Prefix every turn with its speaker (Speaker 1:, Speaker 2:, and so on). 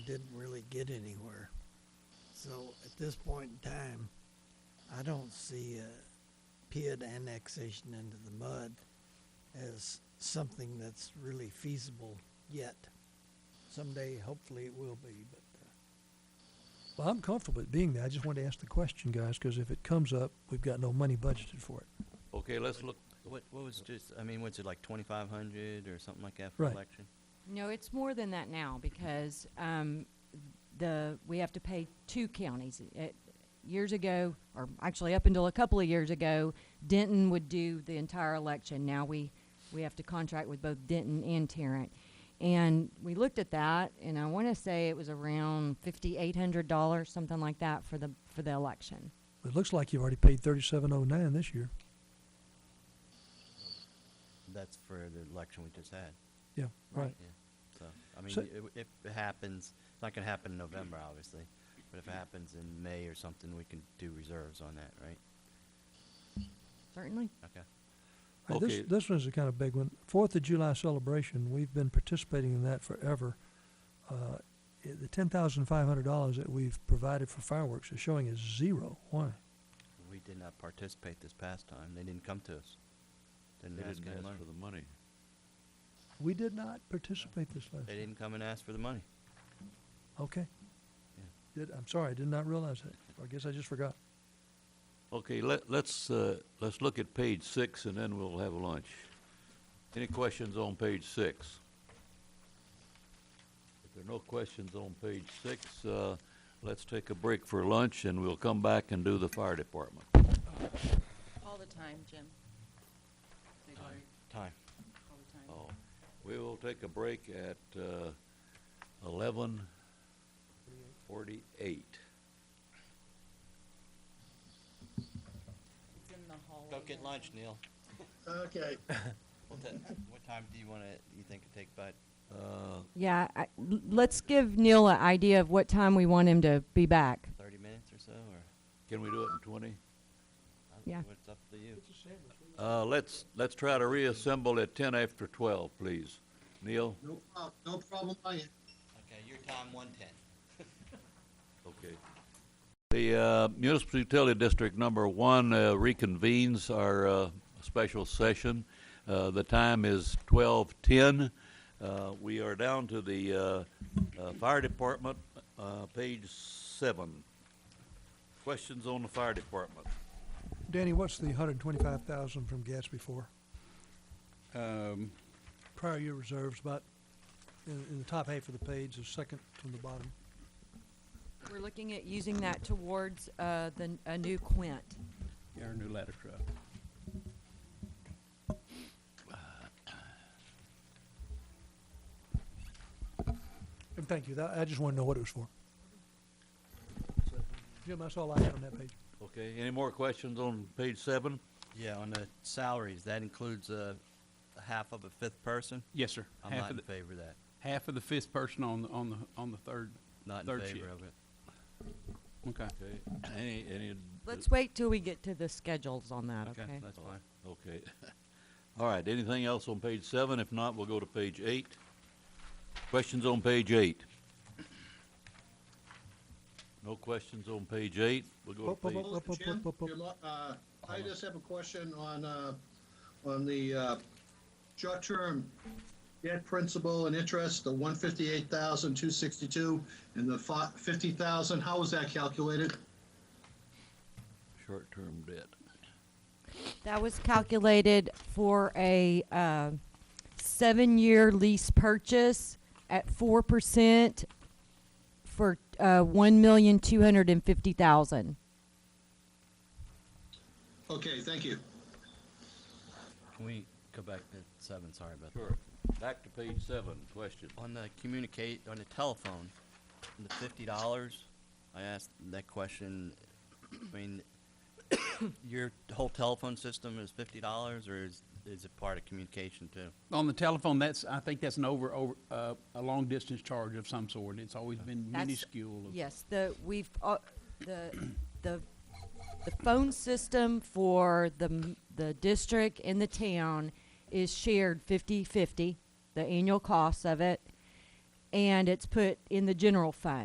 Speaker 1: didn't really get anywhere. So at this point in time, I don't see uh, PID annexation into the mud as something that's really feasible yet. Someday, hopefully, it will be, but uh,
Speaker 2: Well, I'm comfortable with it being there. I just wanted to ask the question, guys, because if it comes up, we've got no money budgeted for it.
Speaker 3: Okay, let's look,
Speaker 4: What, what was just, I mean, was it like twenty-five hundred or something like that
Speaker 2: for
Speaker 4: for
Speaker 2: Right.
Speaker 4: election?
Speaker 5: No, it's more than that now because um, the we have to pay two counties. It, years ago, or actually up until a couple of years ago, Denton would do the entire election. Now we we have to contract with both Denton and Tarrant. And we looked at that, and I want to say it was around fifty-eight hundred dollars, something like that, for the for the election.
Speaker 2: It looks like you've already paid thirty-seven oh nine this year.
Speaker 4: That's for the election we just had.
Speaker 2: Yeah, right.
Speaker 4: Yeah. So, I mean,
Speaker 2: So-
Speaker 4: i- if it happens, it's not gonna happen in November, obviously, but if it happens in May or something, we can do reserves on that, right?
Speaker 5: Certainly.
Speaker 4: Okay.
Speaker 2: All right,
Speaker 3: Okay.
Speaker 2: This, this one's a kind of big one. Fourth of July celebration, we've been participating in that forever. Uh, i- The ten thousand five hundred dollars that we've provided for fireworks is showing as zero. Why?
Speaker 4: We did not participate this past time. They didn't come to us.
Speaker 3: they
Speaker 4: Didn't ask
Speaker 3: didn't
Speaker 4: any
Speaker 3: ask
Speaker 4: money.
Speaker 3: for the money.
Speaker 2: We did not participate this last.
Speaker 4: They didn't come and ask for the money.
Speaker 2: Okay.
Speaker 4: Yeah.
Speaker 2: Did, I'm sorry, I did not realize that. I guess I just forgot.
Speaker 3: Okay, let, let's, uh, let's look at page six and then we'll have lunch. Any questions on page six? If there are no questions on page six, uh, let's take a break for lunch and we'll come back and do the fire department.
Speaker 6: All the time, Jim. They worry
Speaker 4: Time.
Speaker 6: all the time.
Speaker 3: Oh, We will take a break at uh, eleven forty-eight.
Speaker 6: It's in the hallway.
Speaker 4: Go get
Speaker 6: there.
Speaker 4: lunch, Neil.
Speaker 7: Okay.
Speaker 4: What ti- what time do you wanna, you think it take, bud?
Speaker 3: Uh,
Speaker 5: Yeah. I, l- let's give Neil an idea of what time we want him to be back.
Speaker 4: Thirty minutes or so, or?
Speaker 3: Can we do it in twenty?
Speaker 4: I don't know.
Speaker 5: Yeah.
Speaker 4: It's up to you.
Speaker 3: Uh, let's, let's try to reassemble at ten after twelve, please. Neil?
Speaker 7: No problem, no problem, I am.
Speaker 4: Okay, your time, one-ten.
Speaker 3: Okay. The uh, Municipal Utility District Number One uh, reconvenes our uh, special session. Uh, The time is twelve-ten. We are down to the uh, uh, Fire Department, uh, page seven. Questions on the Fire Department?
Speaker 2: Danny, what's the hundred and twenty-five thousand from Gatsby for?
Speaker 8: Um,
Speaker 2: Prior year reserves, about in, in the top half of the page, the second from the bottom.
Speaker 5: We're looking at using that towards uh, the, n- a new quint.
Speaker 8: our new ladder truck.
Speaker 2: And thank you. That, I just want to know what it was for. So, Jim, that's all I had on that page.
Speaker 3: Okay, any more questions on page seven?
Speaker 4: Yeah, on the salaries, that includes a, a half of a fifth person?
Speaker 8: Yes, sir.
Speaker 4: I'm
Speaker 8: Half
Speaker 4: not
Speaker 8: of
Speaker 4: in
Speaker 8: the,
Speaker 4: favor of that.
Speaker 8: half of the fifth person on, the on the, on the third,
Speaker 4: Not in
Speaker 8: third shift.
Speaker 4: favor of it.
Speaker 8: Okay.
Speaker 3: Okay, any, any?
Speaker 5: Let's wait till we get to the schedules on that,
Speaker 4: Okay,
Speaker 5: okay?
Speaker 4: that's fine.
Speaker 3: Okay. All right, anything else on page seven? If not, we'll go to page eight. Questions on page eight? No questions on page eight? We'll go
Speaker 2: Bo-
Speaker 3: to
Speaker 2: bo-
Speaker 3: page,
Speaker 2: bo- Up, up,
Speaker 7: Jim,
Speaker 2: up, up.
Speaker 7: you're lo- uh, I just have a question on, uh, on the uh, short-term debt principal and interest, the one fifty-eight thousand, two sixty-two, and the fi- fifty thousand, how was that calculated?
Speaker 3: short-term debt.
Speaker 5: That was calculated for a uh, seven-year lease purchase at four percent for uh, one million two hundred and fifty thousand.
Speaker 7: Okay, thank you.
Speaker 4: Can we go back to seven, sorry about that.
Speaker 3: Sure. Back to page seven, questions.
Speaker 4: On the communicate, on the telephone, on the fifty dollars, I asked that question, I mean, your whole telephone system is fifty dollars, or is, is it part of communication too?
Speaker 8: On the telephone, that's, I think that's an over, over, uh, a long distance charge of some sort. It's always been
Speaker 5: That's-
Speaker 8: minuscule. of-
Speaker 5: Yes, the, we've, uh, the, the, the phone system for the, m- the district and the town is shared fifty-fifty, the annual cost of it. and it's put in the general fund.